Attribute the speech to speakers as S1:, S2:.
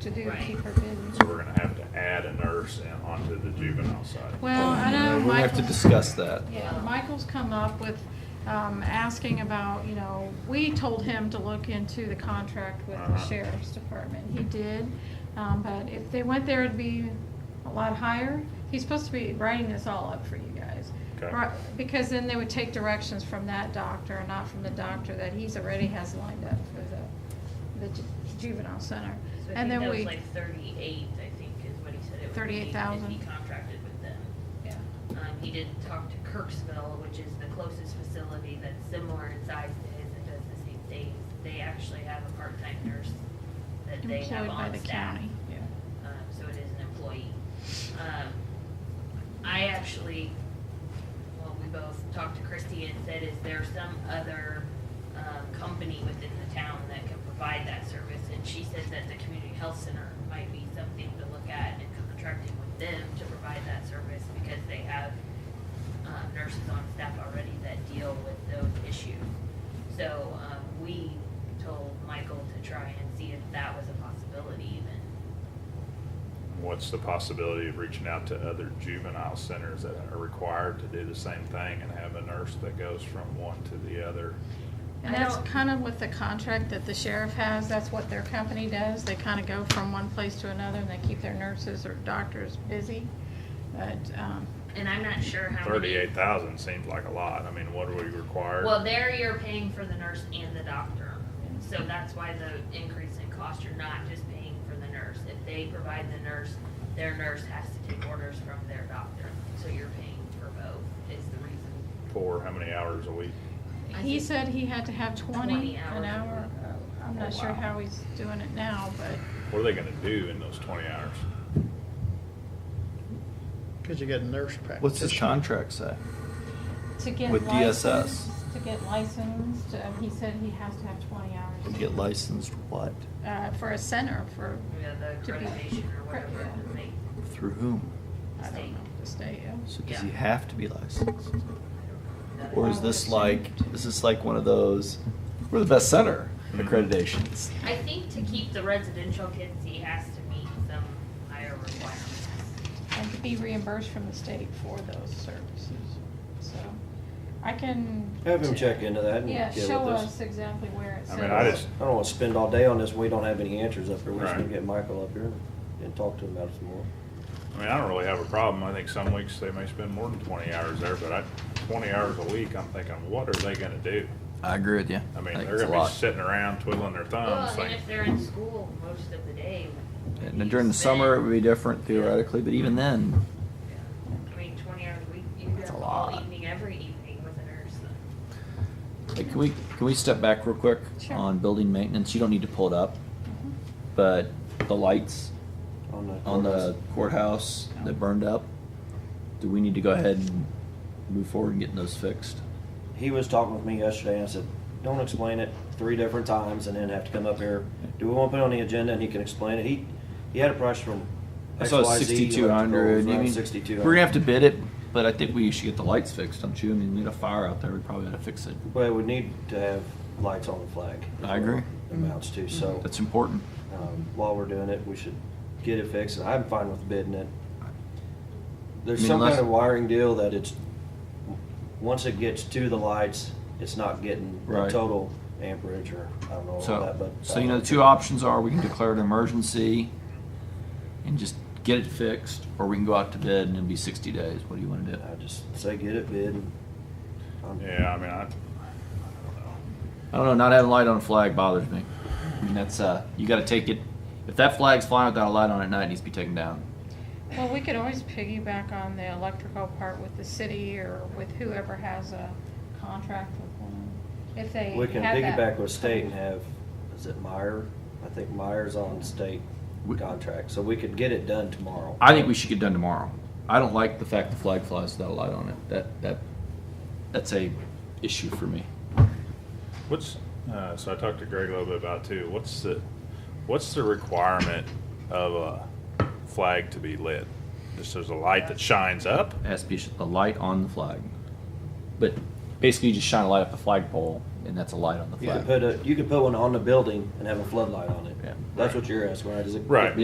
S1: to do
S2: Right.
S1: keep her busy.
S3: So we're gonna have to add a nurse in- onto the juvenile side.
S1: Well, I know
S4: We'll have to
S1: Michael,
S4: discuss that.
S1: yeah, Michael's come up with, um, asking about, you know, we told him to look into the contract with the
S3: Uh-huh.
S1: sheriff's department. He did, um, but if they went there, it'd be a lot higher. He's supposed to be writing this all up for you guys.
S3: Okay.
S1: Right, Because then they would take directions from that doctor and not from the doctor that he's already has lined up for the, the ju- juvenile center.
S2: So I think
S1: And
S2: that
S1: then
S2: was
S1: we,
S2: like thirty-eight, I think, is what he said it would be.
S1: 38,000.
S2: If he contracted with them.
S1: yeah.
S2: Um, he did talk to Kirksville, which is the closest facility that's similar in size to his that does the same things. They actually have a part-time nurse that they have
S1: employed by
S2: on
S1: the
S2: staff.
S1: county.
S2: Um, so it is an employee. Um, I actually, well, we both talked to Christie and said, is there some other, um, company within the town that can provide that service? And she said that the community health center might be something to look at and contracting with them to provide that service because they have, um, nurses on staff already that deal with those issues. So, um, we told Michael to try and see if that was a possibility even.
S3: What's the possibility of reaching out to other juvenile centers that are required to do the same thing and have a nurse that goes from one to the other?
S1: And
S2: I
S1: that's
S2: don't-
S1: kind of with the contract that the sheriff has, that's what their company does. They kind of go from one place to another and they keep their nurses or doctors busy. But, um,
S2: And I'm not sure how many-
S3: Thirty-eight thousand seems like a lot. I mean, what are we required?
S2: Well, there you're paying for the nurse and the doctor. So that's why the increase in cost, you're not just paying for the nurse. If they provide the nurse, their nurse has to take orders from their doctor. So you're paying for both is the reason.
S3: For how many hours a week?
S2: I
S1: he
S2: think-
S1: said he had to have 20
S2: 20
S1: an
S2: hours.
S1: hour. Uh, I'm not
S3: Oh,
S1: sure
S3: wow.
S1: how he's doing it now, but
S3: What are they gonna do in those twenty hours?
S5: Because you got a nurse practitioner.
S4: What's his contract say?
S1: to get
S4: With DSS.
S1: licensed, to get licensed, um, he said he has to have 20
S4: To
S1: hours.
S4: Get licensed what?
S1: Uh, for a center, for,
S2: Yeah, the
S1: To be-
S2: accreditation or whatever.
S1: yeah.
S2: that they-
S4: Through whom?
S1: I don't
S2: State.
S1: know, the state, yeah.
S4: So does he
S2: Yeah.
S4: have to be licensed?
S2: that
S4: Or
S2: is-
S4: is this like, is this like one of those, we're the best center accreditations?
S2: I think to keep the residential kids, he has to meet some higher requirements.
S1: and to be reimbursed from the state for those services. So I can.
S6: Have him check into that and
S1: Yeah,
S6: get with
S1: show
S6: us.
S1: us exactly where it's.
S3: I mean, I just-
S6: I don't want to spend all day on this. We don't have any answers up here. We
S3: Right.
S6: should get Michael up here and talk to him about it some more.
S3: I mean, I don't really have a problem. I think some weeks they may spend more than twenty hours there, but I, twenty hours a week, I'm thinking, what are they gonna do?
S4: I agree with you.
S3: I mean,
S4: think
S3: they're
S4: it's a
S3: gonna be
S4: lot.
S3: sitting around twiddling their thumbs,
S2: Well, and
S3: thinking,
S2: if they're in school most of the day.
S4: And during the summer, it would be different theoretically, but even then,
S2: I mean, twenty hours a week, you could
S4: That's
S2: have
S4: a
S2: all
S4: lot.
S2: evening, every evening with a nurse.
S4: hey, can we, can we step back real quick
S1: Sure. Mm-hmm.
S4: on building maintenance? You don't need to pull it up, but the lights
S6: On the.
S4: on the courthouse that burned up, do we need to go ahead and move forward and getting those fixed?
S6: He was talking with me yesterday and I said, don't explain it three different times and then have to come up here. Do we want to put it on the agenda and he can explain it? He, he had a price from
S4: I saw
S6: XYZ
S4: sixty-two hundred.
S6: electrical, around 6,200.
S4: We're gonna have to bid it, but I think we should get the lights fixed, don't you? I mean, we had a fire out there, we probably ought to fix it.
S6: Well, we need to have lights on the flag. is
S4: I agree.
S6: what it Amounts to, so.
S4: That's important.
S6: um, while we're doing it, we should get it fixed, and I'm fine with bidding it. There's
S4: I mean,
S6: some
S4: unless-
S6: kind of wiring deal that it's, w- once it gets to the lights, it's not getting the
S4: Right.
S6: total amperage, or I don't know all that,
S4: So,
S6: but. uh,
S4: so you know, the two options are we can declare it an emergency and just get it fixed, or we can go out to bid and it'll be sixty days. What do you wanna do?
S6: I just say get it bid. and I'm-
S3: yeah, I mean, I, I don't know.
S4: I don't know, not having a light on a flag bothers me. I mean, that's, uh, you gotta take it, if that flag's flying without a light on at night, it needs to be taken down.
S1: Well, we could always piggyback on the electrical part with the city or with whoever has a contract with one. If they
S6: We can
S1: have that-
S6: piggyback with state and have, is it Meyer? I think Meyer's on state
S4: We-
S6: contract, so we could get it done tomorrow.
S4: I think we should get done tomorrow. I don't like the fact the flag flies without a light on it. That that that's a issue for me.
S3: What's, uh, so I talked to Greg a little bit about too, what's the, what's the requirement of a flag to be lit? Just there's a light that shines up?
S4: It has to be sh- a light on the flag, but basically you just shine a light up the flagpole and that's a light on the
S6: You
S4: flag.
S6: could put a, you could put one on the building and have a floodlight on it.
S4: Yeah.
S6: That's what you're asking, right? Is it?
S3: Right.